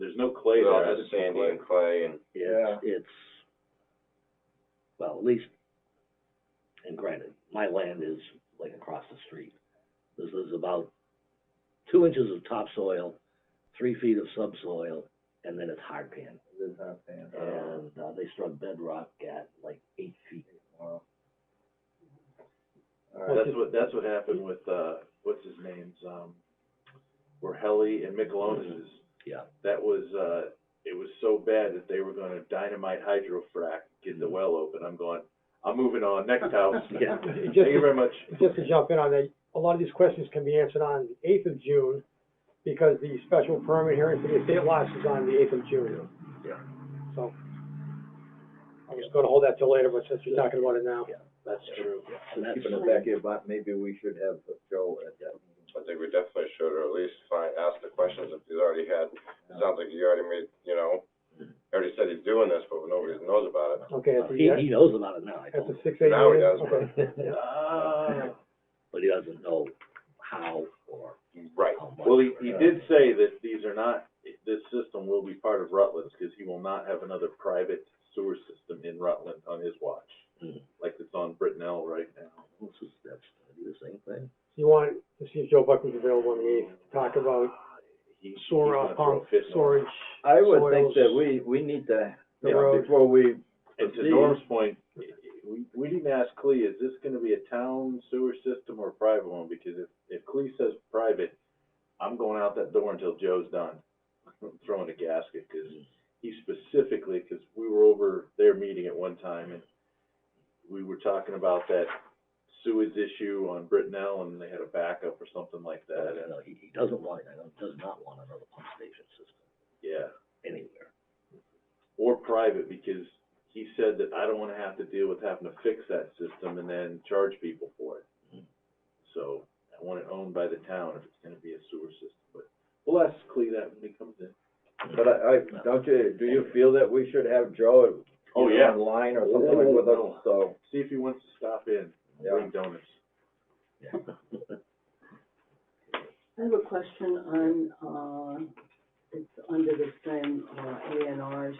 there's no clay Well, there. I didn't just see sandy clay. and clay and, It's, it's, well, at least, and granted, my land is like across the street. This is about two inches of topsoil, three feet of subsoil, and then it's hard pan. And, uh, they struck bedrock at like eight feet. That's what, that's what happened with, uh, what's his name's, um, where Helly and Mikelonis's. Yeah. That was, uh, it was so bad that they were gonna dynamite hydrofrack, get the well open. I'm going, I'm moving on, next house. Yeah. Thank you very much. just to jump in on that, a lot of these questions can be answered on the eighth of June, because the special permit hearing for the estate lots is on the eighth of June. Yeah. So, I was gonna hold that till later, but since you're talking about it now. Yeah. That's true. And that's, back here, but maybe we should have Joe at that meeting. I think we definitely should, or at least find, ask the questions if he's already had. It sounds like he already made, you know, already said he's doing this, but nobody knows about it. Okay, at Uh, he, the, he knows about it now, I at told the him. six eight. Now he does. meeting? Okay. Ah. But he doesn't know how or Right. how much. Well, he, he did say that these are not, this system will be part of Rutland's, because he will not have another private sewer system in Rutland on his watch, Mhm. like it's on Brittenell right now. This is, that's gonna be the same thing. You want to see if Joe Buckley's available on the eighth, talk about He- he's sewer gonna throw a pump, fit in a storage. I would think that soils, we, we need to, The you know, road. before we, And to See. Norm's point, we, we didn't ask Clee, is this gonna be a town sewer system or a private one? Because if, if Clee says private, I'm going out that door until Joe's done. I'm throwing a gasket, cause he specifically, cause we were over their meeting at one time and we were talking about that sewage issue on Brittenell and they had a backup or something like I that, don't and, know, he, he doesn't want, I know, does not want another pump station system yeah. anywhere. or private, because he said that I don't wanna have to deal with having to fix that system and then charge people for it. So, I want it owned by the town if it's gonna be a sewer system, but we'll ask Clee that when he comes in. but I, I, don't you, do you feel that we should have Joe? you Oh, know, yeah. Online or something like with us, so, See if he wants to stop in, and yeah. bring donuts. I have a question on, uh, it's under the same, uh, A and R's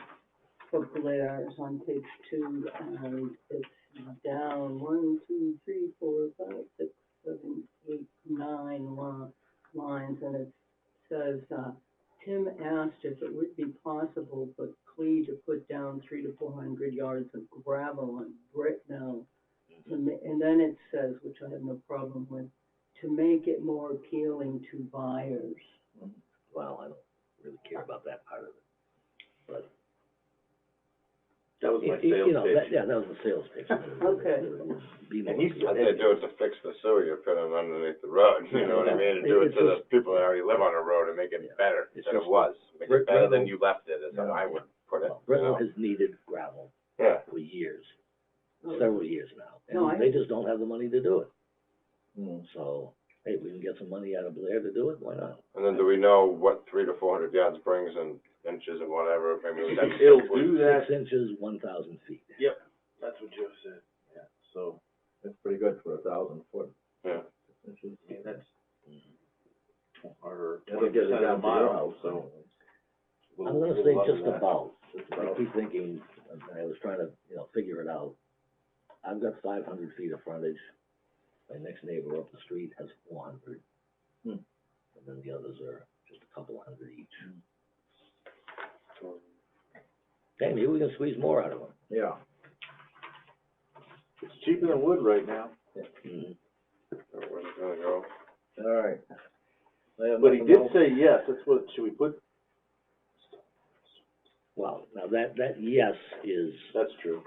book there, it's on page two, and it's down one, two, three, four, five, six, seven, eight, nine li- lines, and it says, uh, Tim asked if it would be possible for Clee to put down three to four hundred yards of gravel and brick now. And then it says, which I have no problem with, to make it more appealing to buyers. Well, I don't really care about that part of it. That was my It- it- you sales know, that- pitch. Yeah, that was the sales pitch. Okay. Be more- And he's- I think do it to fix the sewer you're putting underneath the road, you know what I mean? To do it It's to the people that already live on the road and make it better It's than it just- was. Make it Rick better than Reynolds- you left it, is how I would put it, Well, you Brittle know? has needed gravel Yeah. for years, Oh, several years now, No, I- and they just don't have the money to do it. Hmm. So, hey, we can get some money out of Blair to do it, why not? And then do we know what three to four hundred yards brings in inches and whatever, maybe that's. It'll do that, Six inches, one thousand feet. that's what Joe said, yeah, so, That's pretty good for a thousand foot. Yeah. I mean, that's our That'll twenty get it percent of the down to your mile, house, so. we'll- I'm gonna we'll say love just that. about, Just I about. keep thinking, and I was trying to, you know, figure it out. I've got five hundred feet of frontage, my next neighbor up the street has four hundred. Hmm. And then the others are just a couple hundred each. Hey, maybe we can squeeze more out of them. Yeah. It's cheaper than wood right now. Where's it gonna go? All right. I have But he nothing did else. say yes, that's what, should we put, Well, now that, that yes is, that's true.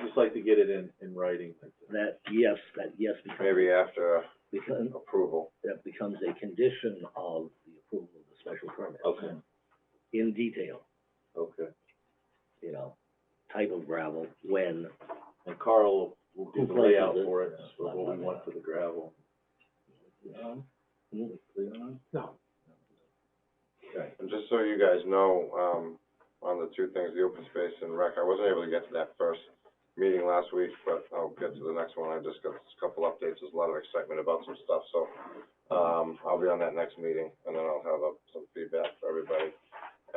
I Just like to get it in, in writing. that yes, that yes becomes, Maybe after becomes, approval. that becomes a condition of the approval of the special permit. Okay. In detail, Okay. you know, type of gravel, when, And Carl will do Who the places layout it? for it, for what we want for the gravel. No, And just so you guys know, um, on the two things, the open space and rec, I wasn't able to get to that first meeting last week, but I'll get to the next one. I just got a couple updates. There's a lot of excitement about some stuff, so, um, I'll be on that next meeting and then I'll have uh, some feedback for everybody.